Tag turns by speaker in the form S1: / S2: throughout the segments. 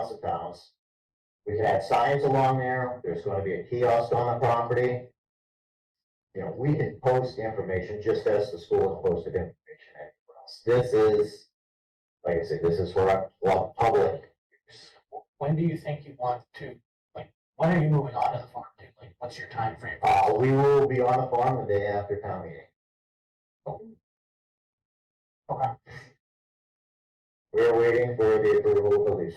S1: House of Commons. We could add signs along there, there's gonna be a kiosk on the property. You know, we can post the information just as the school has posted information everywhere else. This is, like I said, this is for our, well, public.
S2: When do you think you want to, like, when are you moving on to the farm to? Like, what's your time frame?
S1: Uh, we will be on the farm the day after town meeting.
S2: Okay.
S1: We're waiting for the approval of the lease.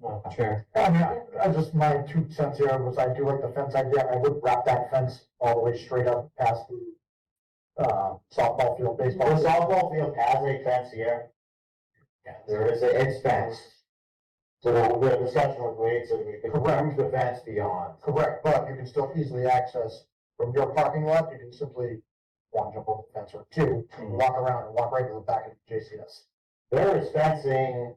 S3: Well, Chair, I mean, I- I just, my two cents here was I do like the fence idea, I would wrap that fence all the way straight up past the uh, softball field,
S1: The
S3: baseball. field.
S1: softball field has a fence here,
S2: Yeah.
S1: there is a, it's fenced. So the, the discussion with Wade, so we can remove the fence beyond.
S3: Correct, but you can still easily access from your parking lot, you can simply one, jump over the fence or two, walk around and walk right to the back of JCS.
S1: Mm-hmm. There is fencing,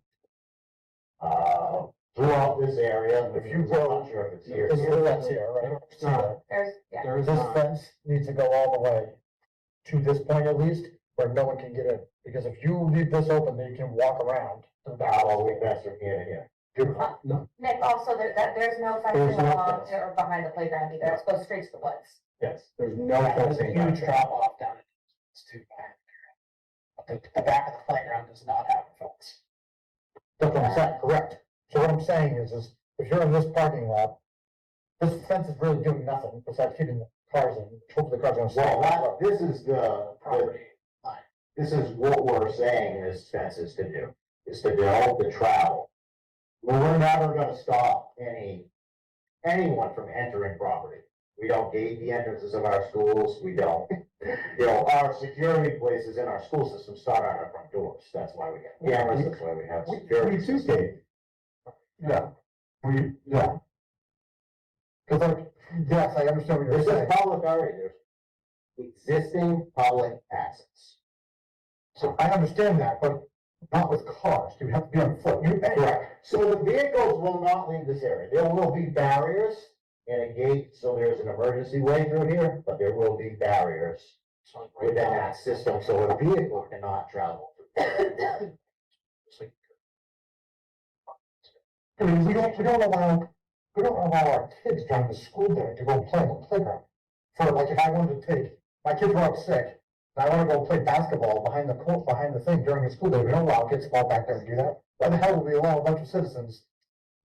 S1: uh, throughout this area, if you go, I'm sure if it's here.
S3: This is the fence here, right?
S1: It's not.
S4: There's, yeah,
S1: There is
S3: This
S1: not.
S3: fence needs to go all the way to this point at least, where no one can get in, because if you leave this open, then you can walk around to the back.
S1: Not all the way past from here to here.
S3: Beautiful.
S4: Nick, also, there, that, there's no fencing
S3: There's no
S4: along
S3: fence.
S4: or behind the playground either, it goes straight to the woods.
S1: Yes.
S3: There's no
S2: There's a huge drop off down at it's too bad. But the, the back of the playground does not have a fence.
S3: That's what I'm saying, correct. So what I'm saying is, is if you're in this parking lot, this fence is really doing nothing besides keeping the cars in, hopefully the cars are gonna
S1: Well,
S3: stop.
S1: that, this is the, the-
S2: Property.
S1: this is what we're saying this fence is to do, is to develop the travel. We're never gonna stop any, anyone from entering property. We don't gate the entrances of our schools, we don't. You know, our security places in our school system start on our front doors, that's why we have cameras, that's why we have security. systems.
S3: Yeah, we, yeah. Cause like, yes, I understand what you're
S1: This is
S3: saying.
S1: public already, there's existing public access.
S3: So I understand that, but not with cars. You have to be on foot. You,
S1: Correct. So the vehicles will not leave this area. There will be barriers and a gate, so there's an emergency way through here, but there will be barriers
S2: So like right
S1: within
S2: now,
S1: that system, so a vehicle cannot travel. through.
S2: it's like
S3: I mean, we don't, we don't allow, we don't allow our kids during the school day to go play on the playground. For like, if I wanted to take, my kids were out sick, and I wanna go play basketball behind the court, behind the thing during the school day, we don't allow kids to go back there and do that. Why the hell would we allow a bunch of citizens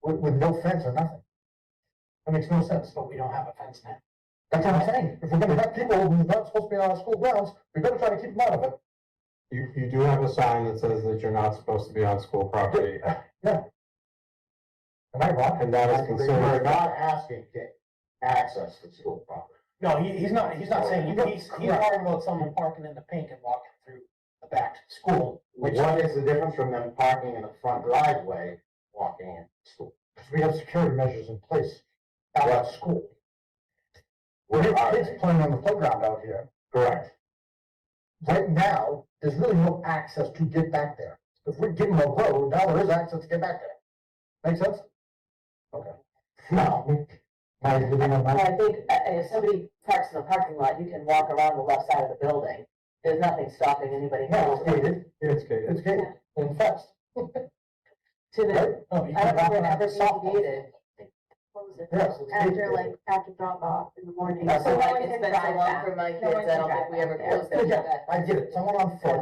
S3: with, with no fence or nothing? That makes no sense.
S2: But we don't have a fence now.
S3: That's what I'm saying. If we're gonna have people who are not supposed to be on our school grounds, we better try to keep them out of it.
S5: You, you do have a sign that says that you're not supposed to be on school property,
S3: Am I wrong?
S5: and that is
S1: We're
S5: considered,
S1: not asking to access to school property.
S2: No, he, he's not, he's not saying,
S3: No,
S2: he's, he's
S3: correct.
S2: talking about someone parking in the pink and walking through the back to school. Which,
S1: What is the difference from them parking in the front driveway, walking in school?
S3: Because we have security measures in place out at school. We
S1: Where
S3: have
S1: are
S3: kids
S1: they?
S3: playing on the playground out here.
S1: Correct.
S3: Right now, there's really no access to get back there. If we give them a road, now there is access to get back there. Make sense? Okay.
S1: No,
S3: Now you're giving them
S6: And
S3: that.
S6: I think, uh, if somebody parks in the parking lot, you can walk around the left side of the building. There's nothing stopping anybody
S3: No,
S6: from
S3: it's gated.
S5: it's gated.
S3: It's gated and fenced,
S6: to
S3: right?
S6: the,
S3: No, you
S6: I
S3: can
S6: don't
S3: walk
S6: remember it
S3: around.
S6: ever being gated.
S3: Yes, it's
S4: After
S3: gated.
S4: like, after drop off in the morning.
S6: So
S4: So no
S6: like,
S4: one
S6: it's
S4: can
S6: been
S4: drive
S6: so long
S4: back.
S6: for my
S4: No
S6: kids,
S4: one
S6: I
S4: can
S6: don't think
S4: drive
S6: we ever
S4: back.
S6: closed
S3: Yeah,
S6: it.
S3: I get it, someone on foot.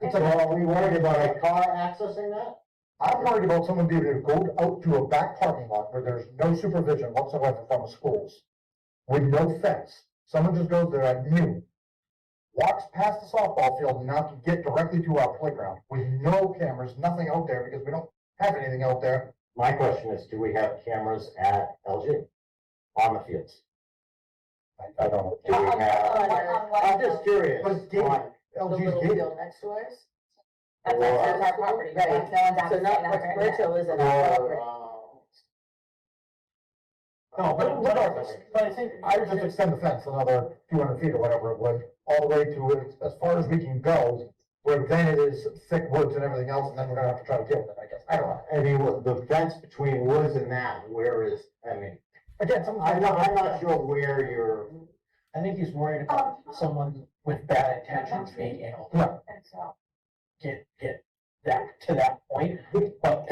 S3: It's like,
S1: well, we worried about a car accessing that?
S3: I'm worried about someone being able to go out to a back parking lot where there's no supervision whatsoever from the schools. With no fence, someone just goes there at noon. Walks past the softball field and now can get directly to our playground with no cameras, nothing out there because we don't have anything out there.
S1: My question is, do we have cameras at LG on the fields?
S3: I- I don't know.
S1: Do we have, I'm just curious.
S3: But it's gated.
S1: on-
S6: The
S3: LG's
S6: little
S3: gated.
S6: field next to ours.
S4: That's
S1: Or-
S4: that's our property, right?
S6: Right.
S4: No one's
S6: So
S4: accessing that
S6: not, what
S4: right now.
S6: Rachel is in our
S1: or,
S6: property.
S1: uh,
S3: No, but regardless,
S2: Oh, but I think,
S3: I would just extend the fence another few hundred feet or whatever it would, all the way to it, as far as we can go. Where then it is thick woods and everything else, and then we're gonna have to try to deal with it, I guess. I don't know.
S1: I mean, what- the fence between woods and that, where is, I mean,
S3: Again, someone's.
S1: I'm not, I'm not sure where you're,
S2: I think he's worried
S3: Um,
S2: about someone with bad intentions being able to
S3: Yeah,
S4: And so-
S2: get, get
S3: that, to that point, but